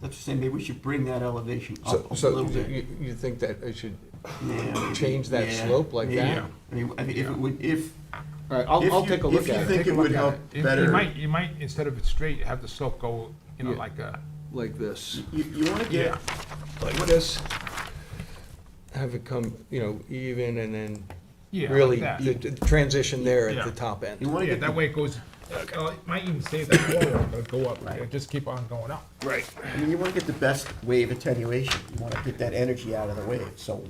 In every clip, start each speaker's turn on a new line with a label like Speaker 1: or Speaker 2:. Speaker 1: That's the same, maybe we should bring that elevation
Speaker 2: So,
Speaker 1: up a
Speaker 2: so
Speaker 1: little
Speaker 2: you,
Speaker 1: bit.
Speaker 2: you think that I should,
Speaker 1: Yeah, maybe.
Speaker 2: change that
Speaker 1: Yeah,
Speaker 2: slope like
Speaker 1: maybe.
Speaker 2: that?
Speaker 1: I mean, I mean, if it would, if,
Speaker 2: all right, I'll,
Speaker 1: If
Speaker 2: I'll
Speaker 1: you-
Speaker 2: take a look
Speaker 1: if you
Speaker 2: at
Speaker 1: think
Speaker 2: it.
Speaker 1: it would help
Speaker 3: You-
Speaker 1: better-
Speaker 3: You might, you might, instead of it straight, have the slope go, you know,
Speaker 2: Yeah.
Speaker 3: like a,
Speaker 2: Like this,
Speaker 1: you, you wanna get,
Speaker 3: yeah,
Speaker 2: like this, have it come, you know, even and then
Speaker 3: yeah,
Speaker 2: really
Speaker 3: like that.
Speaker 2: the- the transition there at
Speaker 3: Yeah.
Speaker 2: the top
Speaker 1: you
Speaker 2: end.
Speaker 1: wanna
Speaker 3: Yeah,
Speaker 1: get,
Speaker 3: that
Speaker 1: the-
Speaker 3: way it goes, uh, it might even stay that low, but it'll go up, it'll just keep on going up.
Speaker 2: Right.
Speaker 1: I mean, you wanna get the best wave attenuation, you wanna get that energy out of the wave, so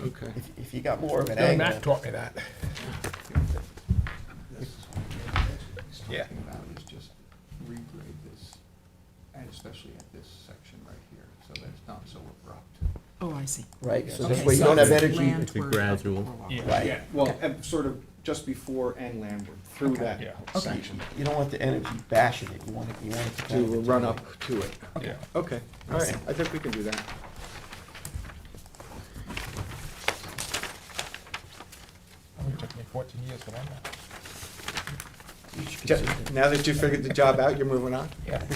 Speaker 2: Okay.
Speaker 1: if, if you got more of an
Speaker 3: Bill Mack
Speaker 1: angle.
Speaker 3: taught me that.
Speaker 4: He's
Speaker 3: Yeah.
Speaker 4: talking about is just regrade this, and especially at this section right here, so that it's not so abrupt.
Speaker 5: Oh, I see.
Speaker 1: Right, so
Speaker 5: Okay,
Speaker 1: that way you don't have
Speaker 5: it's
Speaker 1: energy,
Speaker 5: landward of
Speaker 6: gradual.
Speaker 5: Porlock.
Speaker 1: right,
Speaker 7: Well, and sort of just before and landward, through that
Speaker 3: Yeah.
Speaker 5: Okay.
Speaker 7: section.
Speaker 1: you don't want the energy bashing it, you want it, you want it to.
Speaker 2: To
Speaker 1: kind of
Speaker 2: run up
Speaker 1: attenuate.
Speaker 2: to it.
Speaker 3: Yeah.
Speaker 7: Okay, all right, I think we can do that.
Speaker 3: It took me fourteen years to learn that.
Speaker 1: You should
Speaker 7: Ju-
Speaker 1: consider-
Speaker 7: Now that you figured the job out, you're moving on?
Speaker 3: Yeah.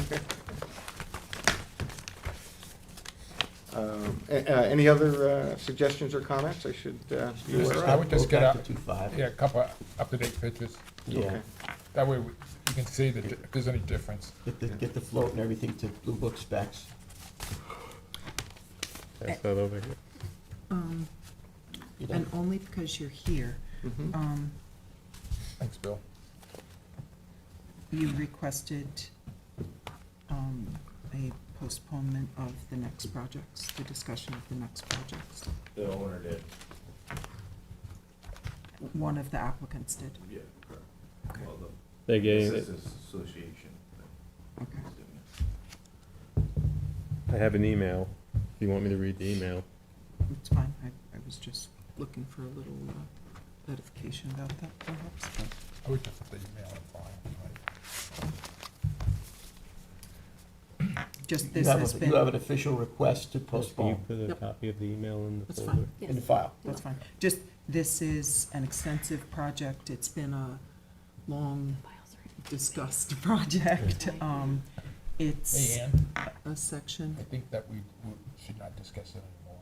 Speaker 7: Um, a- uh, Any other uh, suggestions or comments I should? uh,
Speaker 1: You
Speaker 3: Just-
Speaker 1: wanna
Speaker 3: I would
Speaker 1: go
Speaker 3: just get
Speaker 1: back
Speaker 3: up-
Speaker 1: to 2.5.
Speaker 3: Yeah, a couple up-to-date pictures,
Speaker 1: Yeah,
Speaker 7: Okay.
Speaker 3: that way we- you can see that if there's any difference.
Speaker 1: get the, get the float and everything to Blue Book specs.
Speaker 6: That's that over here.
Speaker 5: Um,
Speaker 1: You know,
Speaker 5: And only because you're here,
Speaker 7: Mhm.
Speaker 5: um,
Speaker 3: Thanks, Bill.
Speaker 5: you requested um, a postponement of the next projects, the discussion of the next projects.
Speaker 8: The owner did,
Speaker 5: One of the applicants did.
Speaker 8: yeah, correct.
Speaker 5: Okay.
Speaker 8: Well, the
Speaker 6: They gave,
Speaker 8: Assistants Association
Speaker 5: Okay.
Speaker 8: was doing it.
Speaker 6: I have an email, if you want me to read the email.
Speaker 5: It's fine. I, I was just looking for a little uh, clarification about that perhaps.
Speaker 3: I would just have to email and file. right?
Speaker 5: Just
Speaker 1: You
Speaker 5: this
Speaker 1: have
Speaker 5: has
Speaker 1: a- you have an
Speaker 5: been,
Speaker 1: official request to
Speaker 6: Can you
Speaker 1: postpone
Speaker 6: put a
Speaker 5: Yep.
Speaker 6: copy of the email in the
Speaker 5: That's
Speaker 6: folder?
Speaker 5: fine.
Speaker 1: in the file.
Speaker 5: that's fine. Just, this is an extensive project. It's been a long discussed project. Um, It's
Speaker 3: Hey, Ann,
Speaker 5: a section.
Speaker 3: I think that we we should not discuss it anymore.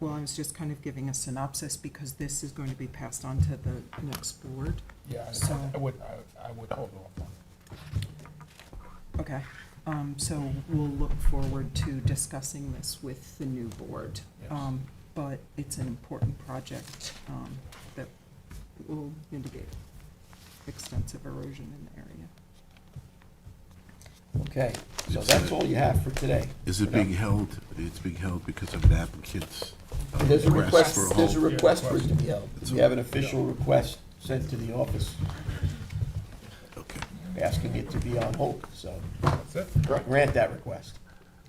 Speaker 5: Well, I was just kind of giving a synopsis because this is going to be passed on to the next board.
Speaker 3: Yeah, I-
Speaker 5: So-
Speaker 3: I would, I- I would hold off on it.
Speaker 5: Okay, um, so we'll look forward to discussing this with the new board.
Speaker 3: Yes.
Speaker 5: Um, but it's an important project, um, that will mitigate extensive erosion in the area.
Speaker 1: Okay, so that's all you have for today.
Speaker 9: Is it being held, it's being held because of an applicant's uh,
Speaker 1: There's a
Speaker 9: request
Speaker 1: request,
Speaker 9: for a
Speaker 1: there's a
Speaker 9: hold?
Speaker 1: request for it to be held. We have an official request sent to the office
Speaker 9: Okay.
Speaker 1: asking it to be on hold, so
Speaker 3: That's it,
Speaker 1: grant that request.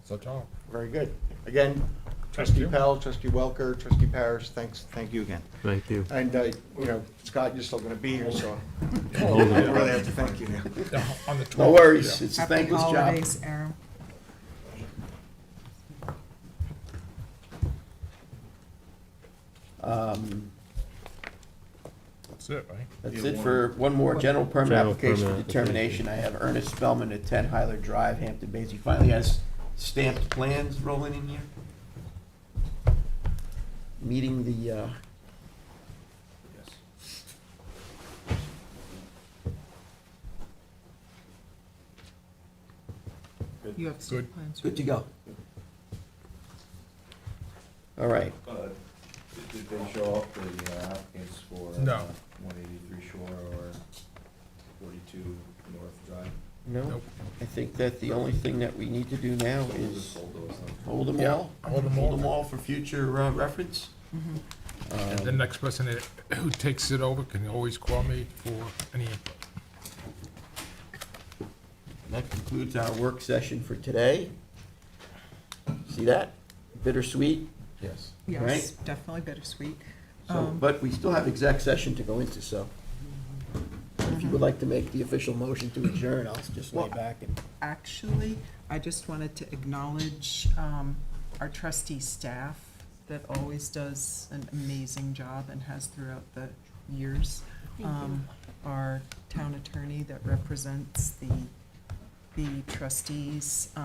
Speaker 3: so, Tom.
Speaker 7: Oh, Very good. Again,
Speaker 3: Thank
Speaker 7: trustee
Speaker 3: you.
Speaker 7: Pell, trustee Welker, trustee Parrish, thanks, thank you again.
Speaker 6: Thank you.
Speaker 7: And, uh, you know, Scott, you're still going to be here, so I
Speaker 6: Hold it.
Speaker 7: really have to thank you now.
Speaker 3: On the 12th.
Speaker 1: No worries, it's a
Speaker 5: Happy
Speaker 1: thankless job.
Speaker 5: holidays, Aaron.
Speaker 1: Um,
Speaker 3: That's it, right?
Speaker 1: That's it for one more general permit
Speaker 6: General
Speaker 1: application for
Speaker 6: permit
Speaker 1: determination. I have Ernest Spellman at ten Hyler Drive, Hampton Bays. He finally has stamped plans rolling in here. Meeting the, uh,
Speaker 5: You have site plans.
Speaker 1: good to go. All right,
Speaker 8: Uh, did- Did they show up, the uh, applicants for?
Speaker 3: No.
Speaker 8: One eighty-three Shore or forty-two North Drive?
Speaker 1: no,
Speaker 3: Nope.
Speaker 1: I think that the only thing that we need to do now
Speaker 8: So we'll
Speaker 1: is
Speaker 8: just hold those up.
Speaker 1: hold them
Speaker 3: Yeah,
Speaker 1: all.
Speaker 3: hold 'em all. Mm-hmm.
Speaker 1: for future uh, reference. Um,
Speaker 3: And the next person that- who takes it over can always call me for any input.
Speaker 1: That concludes our work session for today. See that? Bittersweet.
Speaker 3: Yes.
Speaker 5: Yes,
Speaker 1: Right.
Speaker 5: definitely bittersweet.
Speaker 1: So,
Speaker 5: Um,
Speaker 1: but we still have exec session to go into, so if you
Speaker 5: Um,
Speaker 1: would like to make the official motion to adjourn, I'll just lay
Speaker 5: Well-
Speaker 1: back and.
Speaker 5: Actually, I just wanted to acknowledge um, our trustee staff that always does an amazing job and has throughout the years. Um, Our town attorney that represents the the trustees